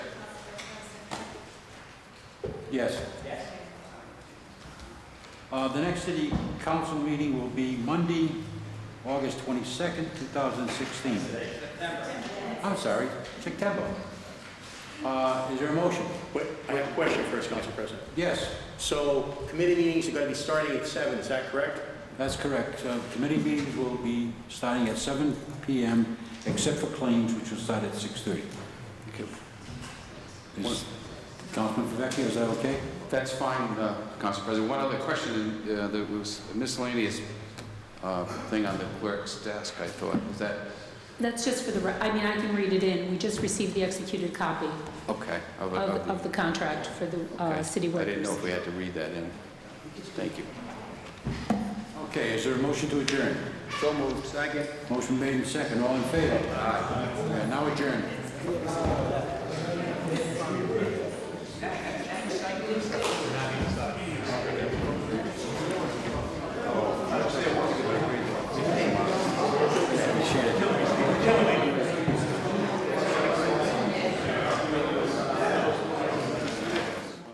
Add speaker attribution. Speaker 1: Yes.
Speaker 2: Yes.
Speaker 1: Uh, The next city council meeting will be Monday, August 22nd, 2016. I'm sorry, September. Uh, Is there a motion?
Speaker 3: Wait, I have a question first, Council President.
Speaker 1: Yes,
Speaker 3: So committee meetings are going to be starting at seven. is that correct?
Speaker 1: that's correct. Uh, Committee meetings will be starting at 7 PM, except for claims, which will start at 6:30. Is- Councilman Favecchio, is that okay?
Speaker 4: That's fine, uh, Council President. One other question, uh, there was a miscellaneous uh, thing on the clerk's desk, I thought. Was that,
Speaker 5: That's just for the, re- I mean, I can read it in. We just received the executed copy
Speaker 4: okay. of-
Speaker 5: of,
Speaker 4: of
Speaker 5: of the contract for the uh,
Speaker 4: okay.
Speaker 5: city
Speaker 4: I didn't
Speaker 5: workers.
Speaker 4: know if we had to read that in. Thank you.
Speaker 1: Okay, is there a motion to adjourn?
Speaker 3: So moved. Second.
Speaker 1: Motion made in second, all in favor? Aye. Now adjourned.